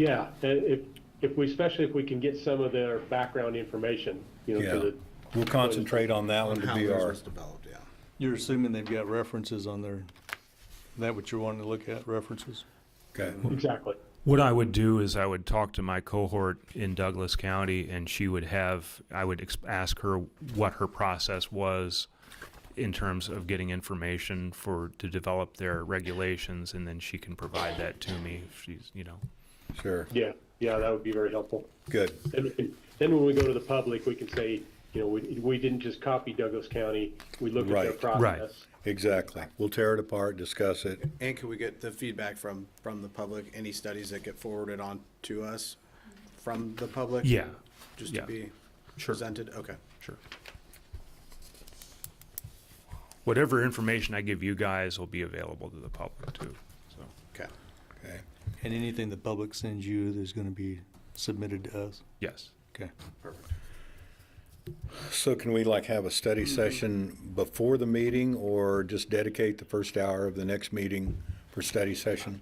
Yeah, and if, if we, especially if we can get some of their background information, you know, Yeah, for the, we'll concentrate on that one on to how be theirs our, was developed, yeah. You're assuming they've got references on their, is that what you're wanting to look at, references? okay, exactly. What I would do is I would talk to my cohort in Douglas County, and she would have, I would ex- ask her what her process was in terms of getting information for, to develop their regulations, and then she can provide that to me if she's, you know. sure, Yeah, yeah, that would be very helpful. good. Then, we can- then when we go to the public, we can say, you know, we, we didn't just copy Douglas County, we looked at their Right. Right. process. Exactly. We'll tear it apart, discuss it. And can we get the feedback from, from the public, any studies that get forwarded on to us from the public? Yeah, Just to yeah. be Sure. presented, okay. Sure. Whatever information I give you guys will be available to the public too, so. Okay. Okay. And anything the public sends you that's gonna be submitted to us? Yes. Okay. So can we like have a study Mm-hmm. session before the meeting or just dedicate the first hour of the next meeting for study session?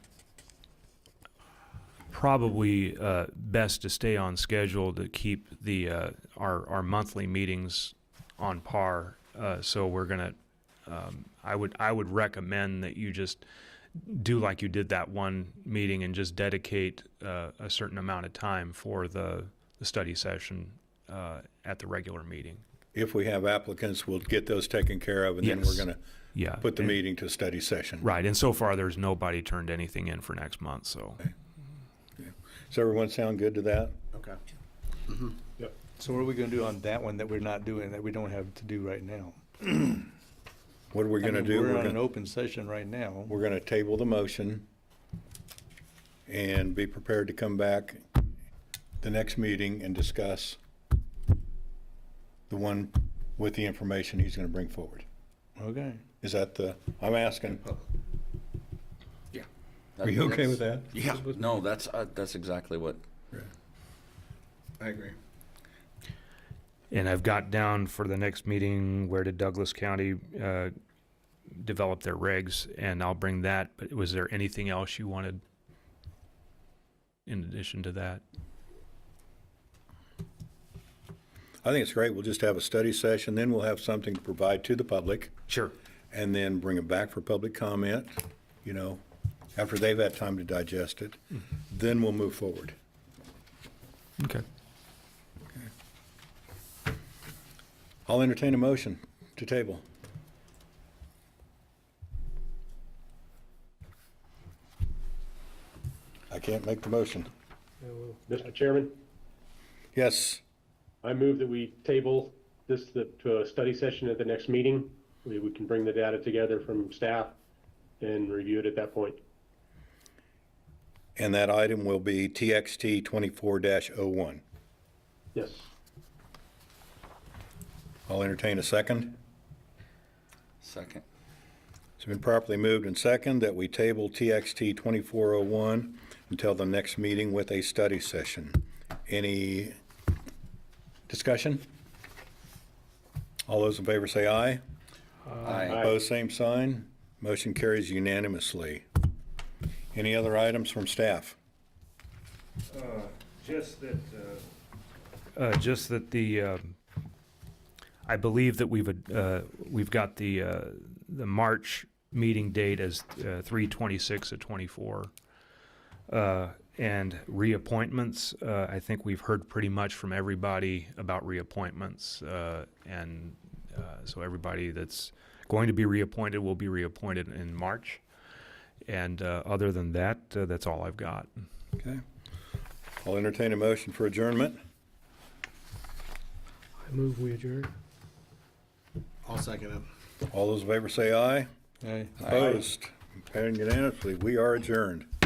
probably uh, best to stay on schedule to keep the uh, our our monthly meetings on par. Uh, so we're gonna. Um, I would I would recommend that you just do like you did that one meeting and just dedicate uh, a certain amount of time for the the study session uh, at the regular meeting. If we have applicants, we'll get those taken care of and then we're Yes. gonna Yeah. put the and- meeting to study session. right. And so far, there's nobody turned anything in for next month. So. Does everyone sound good to that? Okay. Yep. So what are we gonna do on that one that we're not doing, that we don't have to do right now? What are we I gonna mean, do? We're We're on an gonna- open session right now. We're gonna table the motion and be prepared to come back the next meeting and discuss the one with the information he's gonna bring forward. Okay. Is that the, I'm asking, are you okay with that? Yeah. No, that's, uh, that's exactly what, I agree. And I've got down for the next meeting, where did Douglas County uh, develop their regs? And I'll bring that, but was there anything else you wanted in addition to that? I think it's great. We'll just have a study session, then we'll have something to provide to the public Sure. and then bring it back for public comment, you know, after they've had time to digest it. Then we'll move forward. Okay. I'll entertain a motion to table. I can't make the motion. Mr. Chairman, Yes, I move that we table this the- to a study session at the next meeting. We, we can bring the data together from staff and review it at that point. and that item will be TXT twenty-four dash oh one. Yes. I'll entertain a second. second. It's been properly moved and second that we table TXT 2401 until the next meeting with a study session. Any discussion? All those in favor say aye. Aye. Opposed, same sign. Motion carries unanimously. Any other items from staff? Uh, Just that. Uh, just that the, um, I believe that we've, uh, we've got the, uh, the March meeting date as, uh, three twenty-six of twenty-four. Uh, and reappointments, uh, I think we've heard pretty much from everybody about reappointments, uh, and, uh, so everybody that's going to be reappointed will be reappointed in March. And, uh, other than that, uh, that's all I've got. Okay. I'll entertain a motion for adjournment. I move we adjourn. I'll second it. All those in favor say aye. Aye. Opposed, carrying unanimously. We are adjourned.